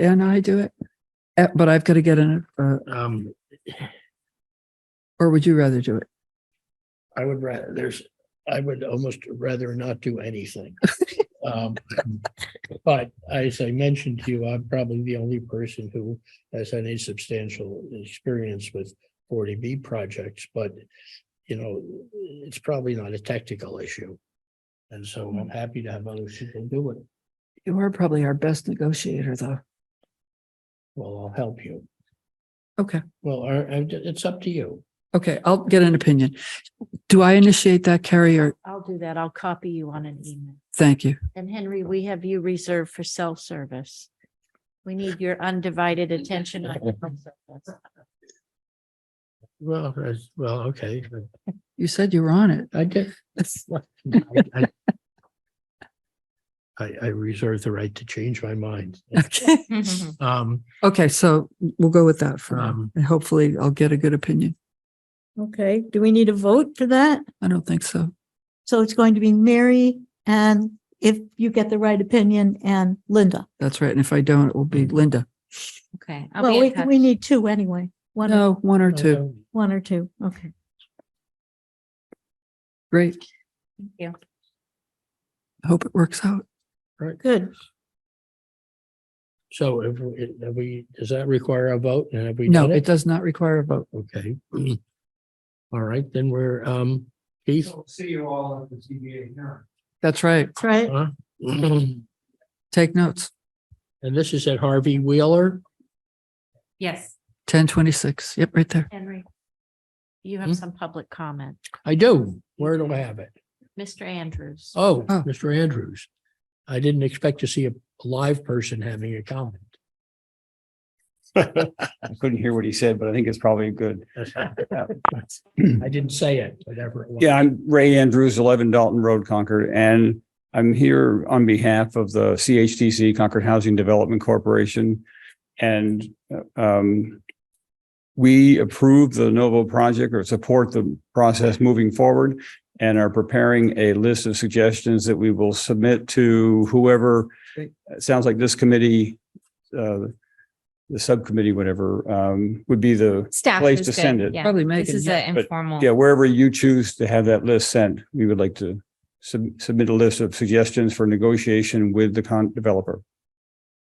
and I do it? Uh, But I've got to get in, it, uh, Um, or would you rather do it? I would rather, there's, I would almost rather not do anything. Um, But as I mentioned to you, I'm probably the only person who has any substantial experience with forty B projects, but you know, it's probably not a technical issue. And so I'm happy to have other people do it. You are probably our best negotiator, though. Well, I'll help you. Okay. Well, or- and it's up to you. Okay, I'll get an opinion. Do I initiate that, Carrie, or I'll do that. I'll copy you on an email. thank you? And Henry, we have you reserved for self-service. We need your undivided attention. on self-service. Well, that's- well, okay. You said you were on it. I did, I, I I reserve the right to change my mind. Okay. Um, Okay, so we'll go with that for now, Um, and hopefully I'll get a good opinion. Okay, do we need a vote for that? I don't think so. So it's going to be Mary and if you get the right opinion and Linda. That's right. And if I don't, it will be Linda. Okay. I'll be Well, in we, touch. we need two anyway, one, No, one or two. uh, one or two. Okay. Great. Thank you. I Hope it works out. Good. So if, we- have we, does that require a vote? And have we No, done it it? does not require a vote. Okay. All right, then we're, um, Keith? See you all at the ZBA hearing. That's right. That's right. huh? And Take notes. this is at Harvey Wheeler? Yes, Hmm? Ten twenty-six. Yep, right there. Henry. You Hmm? have some public comment. I do. Where do I have it? Mr. Andrews. Oh, Oh. Mr. Andrews. I didn't expect to see a live person having a comment. I couldn't hear what he said, but I think it's probably good. I didn't say it, whatever it was. Yeah, I'm Ray Andrews, eleven Dalton Road, Concord, and I'm here on behalf of the CHDC Concord Housing Development Corporation. And um, we approve the Novo project or support the process moving forward and are preparing a list of suggestions that we will submit to whoever, it sounds like this committee, uh, the subcommittee, whatever, um, would be the staff place is to good, send it. yeah. Probably This Megan. is yeah. an but, informal. Yeah, wherever you choose to have that list sent, we would like to sub- submit a list of suggestions for negotiation with the con developer.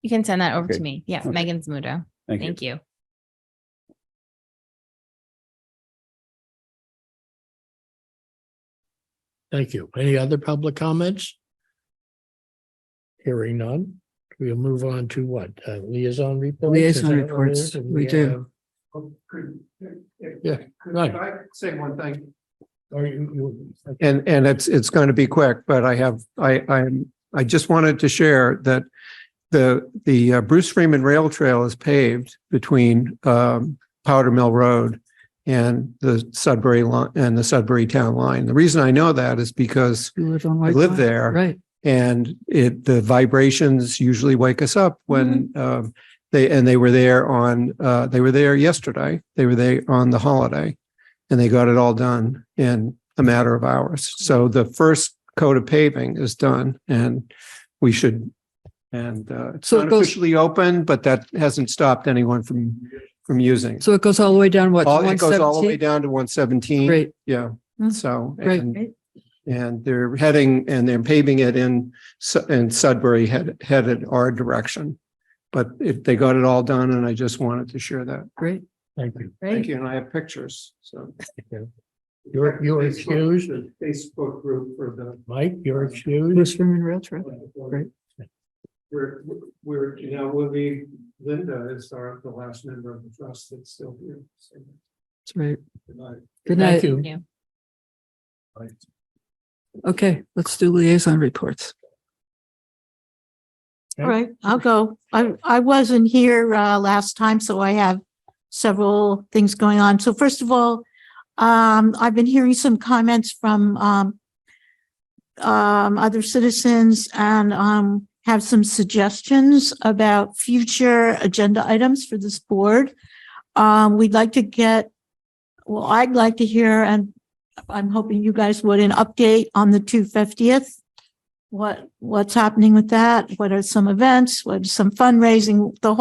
You can send that over Okay. to me. Yeah, Okay. Megan's Mudo. Thank you. Thank you. Thank you. Any other public comments? Hearing none, we'll move on to what? Uh, Liaison reports? Is Liaison that what it reports, is? And we do. have- Yeah, Could right. I say one thing? Or you, you, okay, And, and it's, it's going to be quick, but I have, I, I'm, I just wanted to share that the, the uh, Bruce Freeman Rail Trail is paved between, um, Powder Mill Road and the Sudbury line, and the Sudbury Town Line. The reason I know that is because You live on I White. live Pine. there. Right. And it, the vibrations usually wake us up when Mm-hmm. um, they, and they were there on, uh, they were there yesterday. They were there on the holiday. And they got it all done in a matter of hours. So the first coat of paving is done and we should, and uh, it's So it not goes- officially open, but that hasn't stopped anyone from, from using. it. So it goes all the way down what? to All- Oh, It goes all the way 117? down to 117. Great. Mm-hmm. Yeah, Mm. so. Great. and- Great. And they're heading, and they're paving it in, Su- and Sudbury head headed our direction. But if they got it all done, and I just wanted to share that. Great. thank you. Thank you, and I have pictures, so. You're, you're excused. Facebook group for the Mike, you're excused. Bruce Freeman Rail Trail. Great. We're, we're, you know, we'll be, Linda is our, the last member of the trust that's still here. so, That's right. good night. Good Thank night. you. Okay, let's do liaison reports. All right, I'll go. I, I wasn't here uh, last time, so I have several things going on. So first of all, um, I've been hearing some comments from um, um, other citizens and um, have some suggestions about future agenda items for this board. Um, we'd like to get, well, I'd like to hear, and I'm hoping you guys would, an update on the two fiftieth what, what's happening with that? What are some events? What are some fundraising? The whole